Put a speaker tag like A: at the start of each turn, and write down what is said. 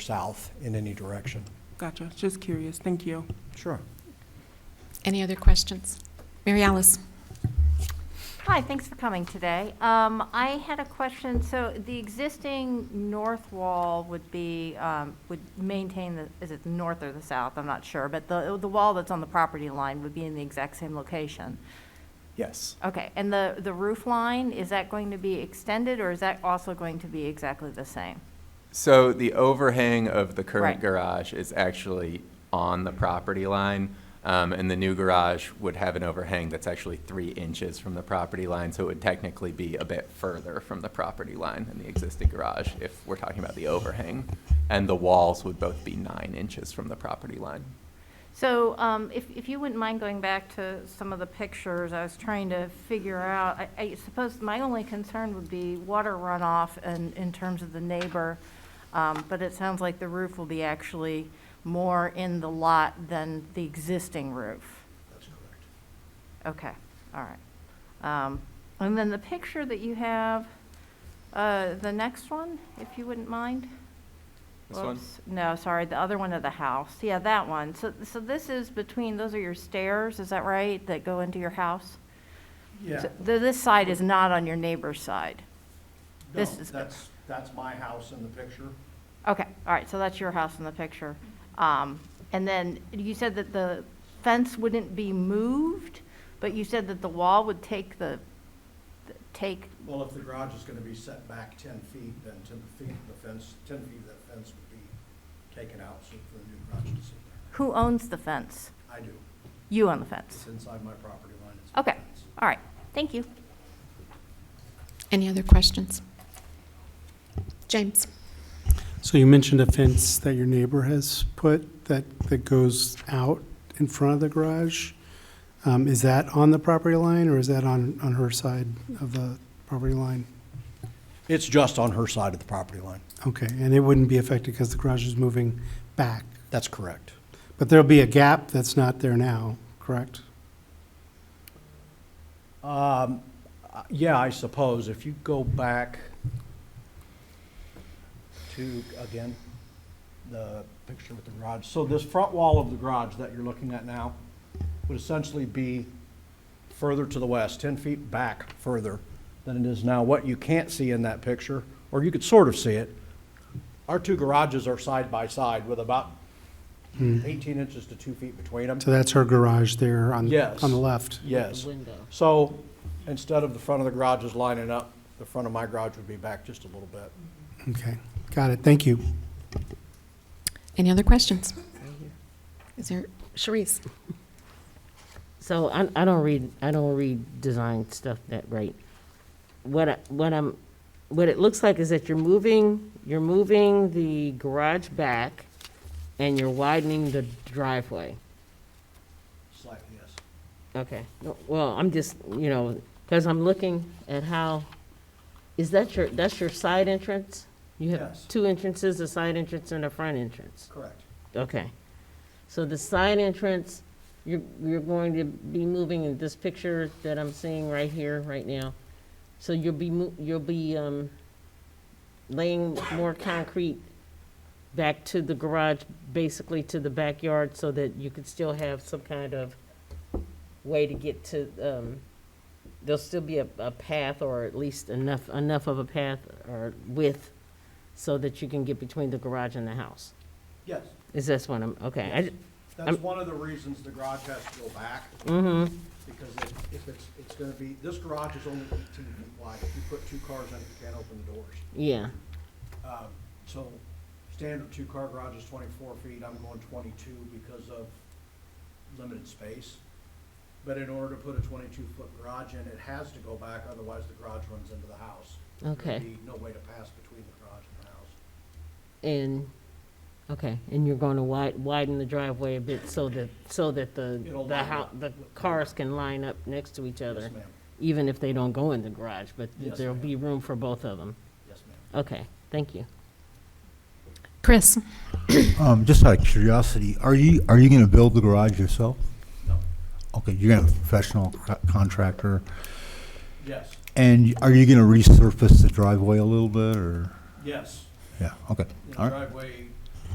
A: south in any direction.
B: Gotcha, just curious, thank you.
A: Sure.
C: Any other questions? Mary Alice?
D: Hi, thanks for coming today. Um, I had a question, so the existing north wall would be, um, would maintain the, is it the north or the south? I'm not sure, but the, the wall that's on the property line would be in the exact same location.
A: Yes.
D: Okay, and the, the roof line, is that going to be extended, or is that also going to be exactly the same?
E: So the overhang of the current
D: Right.
E: garage is actually on the property line, um, and the new garage would have an overhang that's actually three inches from the property line, so it would technically be a bit further from the property line than the existing garage if we're talking about the overhang. And the walls would both be nine inches from the property line.
D: So um, if, if you wouldn't mind going back to some of the pictures, I was trying to figure out, I- I suppose my only concern would be water runoff and in terms of the neighbor, um, but it sounds like the roof will be actually more in the lot than the existing roof.
A: That's correct.
D: Okay, all right. Um, And then the picture that you have, uh, the next one, if you wouldn't mind?
E: This one?
D: Whoops. No, sorry, the other one of the house. Yeah, that one. So, so this is between, those are your stairs, is that right, that go into your house?
A: Yeah.
D: So th- This side is not on your neighbor's side.
A: No,
D: this is-
A: that's, that's my house in the picture.
D: Okay, all right, so that's your house in the picture. Um, And then you said that the fence wouldn't be moved, but you said that the wall would take the, th- take,
A: Well, if the garage is going to be set back ten feet, then ten feet of the fence, ten feet of that fence would be taken out so for the new garage to sit there.
D: who owns the fence?
A: I do.
D: You own the
A: It's
D: fence.
A: inside my property line. It's my
D: Okay,
A: fence.
D: all right, thank you.
C: Any other questions? James?
F: So you mentioned a fence that your neighbor has put that, that goes out in front of the garage. Um, is that on the property line or is that on, on her side of the property line?
A: It's just on her side of the property line.
F: Okay, and it wouldn't be affected because the garage is moving back.
A: That's correct.
F: But there'll be a gap that's not there now, correct?
A: Uh, Yeah, I suppose if you go back to, again, the picture with the garage. So this front wall of the garage that you're looking at now would essentially be further to the west, 10 feet back further than it is now. What you can't see in that picture, or you could sort of see it, our two garages are side by side with about 18 inches to 2 feet between them.
F: So that's her garage there on,
A: Yes.
F: on the left.
A: Yes. So instead of the front of the garage is lining up, the front of my garage would be back just a little bit.
F: Okay, got it, thank you.
C: Any other questions? Is there, Sharice?
G: So I, I don't read, I don't read design stuff that right. What, I- what I'm, what it looks like is that you're moving, you're moving the garage back and you're widening the driveway.
A: Slightly, yes.
G: Okay, No, well, I'm just, you know, because I'm looking at how, is that your, that's your side entrance? You
A: Yes.
G: have two entrances, a side entrance and a front entrance?
A: Correct.
G: Okay. So the side entrance, you're, you're going to be moving in this picture that I'm seeing right here, right now. So you'll be, mo- you'll be um, laying more concrete back to the garage, basically to the backyard, so that you could still have some kind of way to get to, um, there'll still be a, a path, or at least enough, enough of a path or width, so that you can get between the garage and the house.
A: Yes.
G: Is this one, I'm, okay, I,
A: That's
G: I'm- Mm-hmm.
A: one of the reasons the garage has to go back. Because if- if it's, it's gonna be, this garage is only eighteen feet wide. If you put two cars in it, you can't open the doors.
G: yeah,
A: So standard two-car garage is twenty-four feet, I'm going twenty-two because of limited space. But in order to put a twenty-two-foot garage in, it has to go back, otherwise the garage runs into the house. There'd
G: Okay.
A: be no way to pass between the garage and the house.
G: and, okay, and you're gonna wi- widen the driveway a bit so that, so that the,
A: It'll
G: the
A: line
G: hou-
A: up.
G: the cars can line up next to each other.
A: Yes, ma'am.
G: Even if they don't go in the garage, but
A: Yes,
G: there'll
A: ma'am.
G: be room for both of them.
A: Yes, ma'am.
G: Okay, thank you.
C: Chris?
H: Um, just out of curiosity, are you, are you gonna build the garage yourself?
A: No,
H: Okay, you're gonna have a professional co- contractor,
A: yes,
H: and are you gonna resurface the driveway a little bit, or?
A: yes.
H: Yeah, okay,
A: The
H: all right,
A: driveway